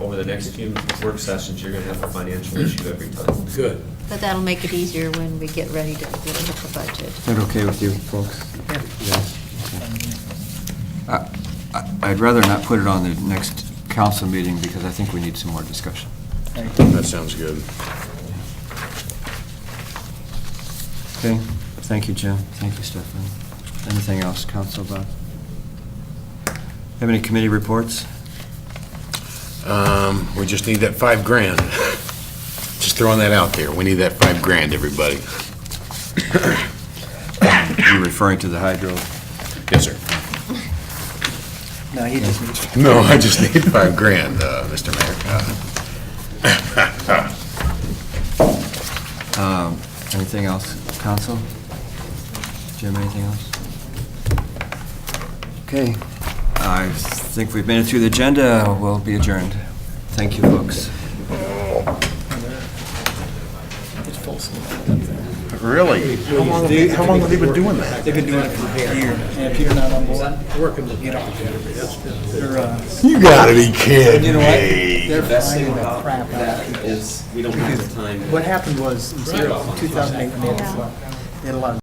the next few work sessions, you're gonna have a financial issue every time. Good. But that'll make it easier when we get ready to really hit the budget. that okay with you folks? Yeah. I- I- I'd rather not put it on the next council meeting because I think we need some more discussion. That sounds good. Okay, thank you, Jim. Thank you, Stefan. Anything else, Council Bob? Have any committee reports? Um, we just need that five grand. Just throwing that out there. We need that five grand, everybody. You're referring to the hydro. Yes, sir. No, he just needs. No, I just need five grand, uh, Mr. Mayor. Uh, Um, Anything else, Council? Jim, anything else? Okay, I think we've made it through the agenda. We'll be adjourned. Thank you, folks. Really? How long, how long have they been doing that? They've been doing it for a year. And if you're not on board, Working the you know, they're, uh, You gotta be kidding you know what? me. They're best thing finding the about crap out that of people. is we don't have the time. What happened was, in 2008, when they had the flood, they had a lot of